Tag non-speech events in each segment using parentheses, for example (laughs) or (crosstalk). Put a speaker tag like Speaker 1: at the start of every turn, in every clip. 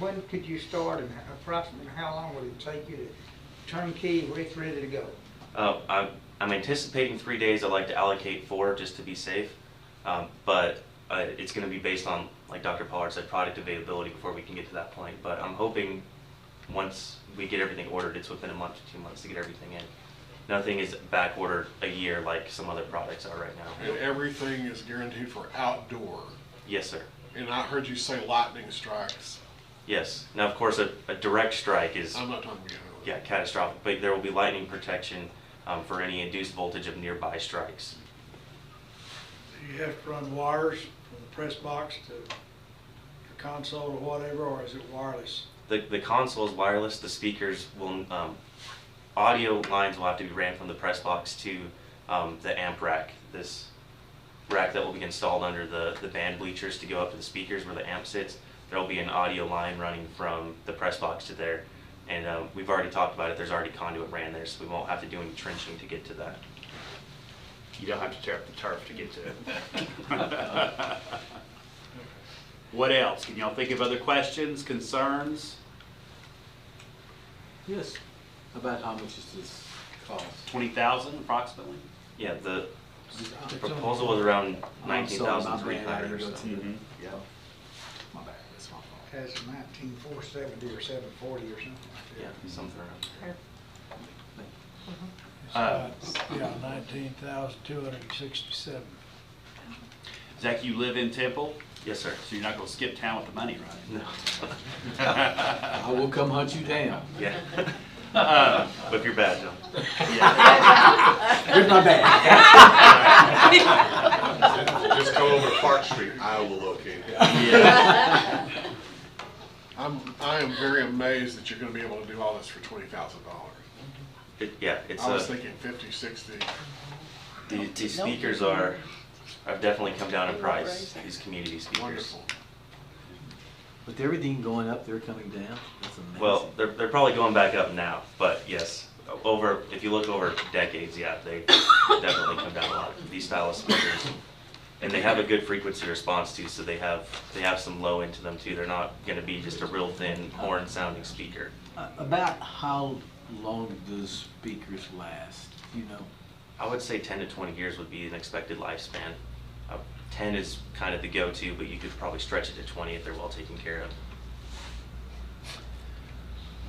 Speaker 1: When could you start and how- approximately how long would it take you to turnkey, Rick, ready to go?
Speaker 2: Uh, I'm, I'm anticipating three days. I'd like to allocate four just to be safe. Um, but uh, it's going to be based on, like Dr. Pollard said, product availability before we can get to that point. But I'm hoping once we get everything ordered, it's within a month to two months to get everything in. Nothing is back ordered a year like some other products are right
Speaker 3: And
Speaker 2: now.
Speaker 3: everything is guaranteed for outdoor.
Speaker 2: Yes, sir.
Speaker 3: And I heard you say lightning strikes.
Speaker 2: Yes. Now, of course, a, a direct strike is
Speaker 3: I'm not talking about.
Speaker 2: yeah catastrophic, but there will be lightning protection um, for any induced voltage of nearby strikes.
Speaker 4: Do you have to run wires from the press box to the console or whatever, or is it wireless?
Speaker 2: The, the console is wireless, the speakers will, um, audio lines will have to be ran from the press box to, um, the amp rack. This rack that will be installed under the, the band bleachers to go up to the speakers where the amp sits. There'll be an audio line running from the press box to there. And, um, we've already talked about it, there's already conduit ran there, so we won't have to do any trenching to get to that.
Speaker 5: You don't have to tear up the turf to get to it. What else? Can y'all think of other questions, concerns?
Speaker 6: Yes. About how much does this cost?
Speaker 5: Twenty thousand approximately?
Speaker 2: Yeah, the
Speaker 6: I'm
Speaker 2: the proposal was around nineteen
Speaker 6: sorry, my
Speaker 2: thousand three
Speaker 6: bad, I
Speaker 2: hundred or
Speaker 6: didn't go to
Speaker 2: something.
Speaker 6: you.
Speaker 5: Mhm.
Speaker 6: Yeah. My bad, that's my fault.
Speaker 1: As of nineteen four seventy or seven forty or something like that.
Speaker 2: Yeah, something around.
Speaker 5: Uh,
Speaker 7: Yeah, nineteen thousand two hundred and sixty-seven.
Speaker 5: Zach, you live in Temple,
Speaker 2: Yes, sir. (laughs)
Speaker 5: so you're not gonna skip town with the money, right?
Speaker 2: No. (laughs)
Speaker 6: (laughs) I will come hunt you down.
Speaker 2: Yeah,
Speaker 5: Uh,
Speaker 2: whip your badge on.
Speaker 6: Here's my bag.
Speaker 3: (laughs)
Speaker 8: Just go over to Park Street, I will locate it.
Speaker 5: yeah.
Speaker 3: I'm, I am very amazed that you're gonna be able to do all this for twenty thousand dollars.
Speaker 2: It, yeah, it's
Speaker 3: I was
Speaker 2: a,
Speaker 3: thinking fifty, sixty.
Speaker 2: the, the speakers are, I've definitely come down in price, these community speakers.
Speaker 3: Wonderful.
Speaker 6: With everything going up, they're coming down. That's amazing.
Speaker 2: Well, they're, they're probably going back up now, but yes, over, if you look over decades, yeah, they definitely come down a lot, these style of speakers. And they have a good frequency response too, so they have, they have some low into them too, they're not gonna be just a real thin horn sounding speaker.
Speaker 6: Uh, About how long do those speakers last, you know?
Speaker 2: I would say ten to twenty years would be an expected lifespan. Uh, Ten is kind of the go-to, but you could probably stretch it to twenty if they're well taken care of.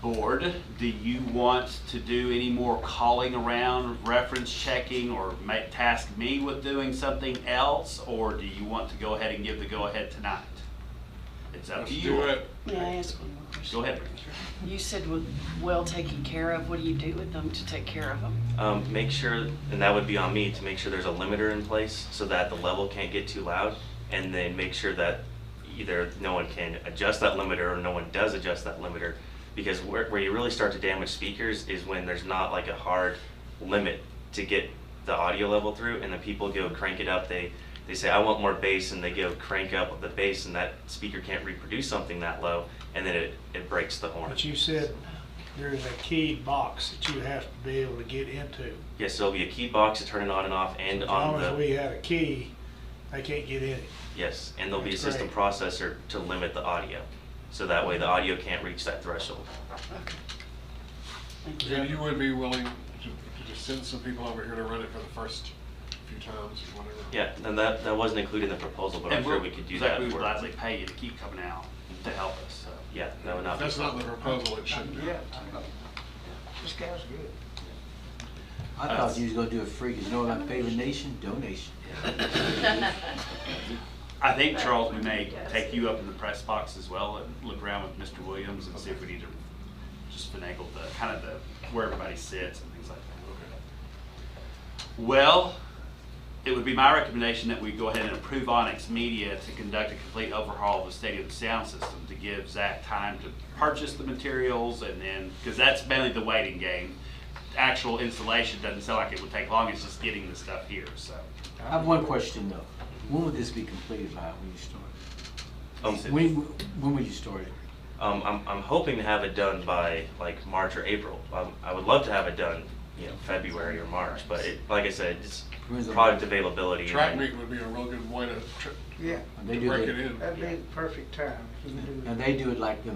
Speaker 5: Board, do you want to do any more calling around, reference checking, or ma- task me with doing something else? Or do you want to go ahead and give the go-ahead tonight? It's up
Speaker 3: Let's
Speaker 5: to you.
Speaker 3: do it.
Speaker 9: May I ask one more question?
Speaker 5: Go ahead.
Speaker 9: You said with well taken care of, what do you do with them to take care of them?
Speaker 2: Um, make sure, and that would be on me, to make sure there's a limiter in place so that the level can't get too loud. And then make sure that either no one can adjust that limiter or no one does adjust that limiter. Because where, where you really start to damage speakers is when there's not like a hard limit to get the audio level through and the people go crank it up, they, they say, I want more bass and they go crank up the bass and that speaker can't reproduce something that low and then it, it breaks the horn.
Speaker 7: But you said there is a keyed box that you have to be able to get into.
Speaker 2: Yes, there'll be a key box to turn it on and off and
Speaker 7: As
Speaker 2: on
Speaker 7: long
Speaker 2: the.
Speaker 7: as we had a key, they can't get in it.
Speaker 2: Yes, and there'll be a
Speaker 7: That's
Speaker 2: system
Speaker 7: great.
Speaker 2: processor to limit the audio, so that way the audio can't reach that threshold.
Speaker 9: Okay. Thank you.
Speaker 3: And you would be willing to, to just send some people over here to run it for the first few times or whatever?
Speaker 2: Yeah, and that, that wasn't included in the proposal, but I'm
Speaker 5: And
Speaker 2: sure
Speaker 5: we're-
Speaker 2: we could do
Speaker 5: Zach,
Speaker 2: that
Speaker 5: we would
Speaker 2: for-
Speaker 5: gladly pay you to keep coming out to help us, so.
Speaker 2: Yeah, that would
Speaker 3: If
Speaker 2: not be.
Speaker 3: that's not the proposal, it shouldn't be.
Speaker 1: This guy's good.
Speaker 6: I thought you was gonna do a free, 'cause you know what, I'm paving nation, donation.
Speaker 5: I think, Charles, we may take you up in the press box as well and look around with Mr. Williams and see if we need to just finagle the, kind of the, where everybody sits and things like that. Well, it would be my recommendation that we go ahead and approve Onyx Media to conduct a complete overhaul of the stadium sound system to give Zach time to purchase the materials and then, because that's mainly the waiting game. Actual installation doesn't sound like it would take long, it's just getting the stuff here, so.
Speaker 6: I have one question though. When would this be completed by, when you start?
Speaker 2: Um,
Speaker 6: When, when would you start it?
Speaker 2: um, I'm, I'm hoping to have it done by like March or April. Um, I would love to have it done, you know, February or March, but it, like I said, it's
Speaker 6: When's the-
Speaker 2: product availability. and
Speaker 3: Track
Speaker 2: then-
Speaker 3: meet would be a real good way to, tri-
Speaker 1: Yeah,
Speaker 6: And they
Speaker 3: to
Speaker 6: do
Speaker 3: break
Speaker 6: the-
Speaker 3: it in.
Speaker 1: that'd be the perfect time. if you can do it.
Speaker 6: And they do it like the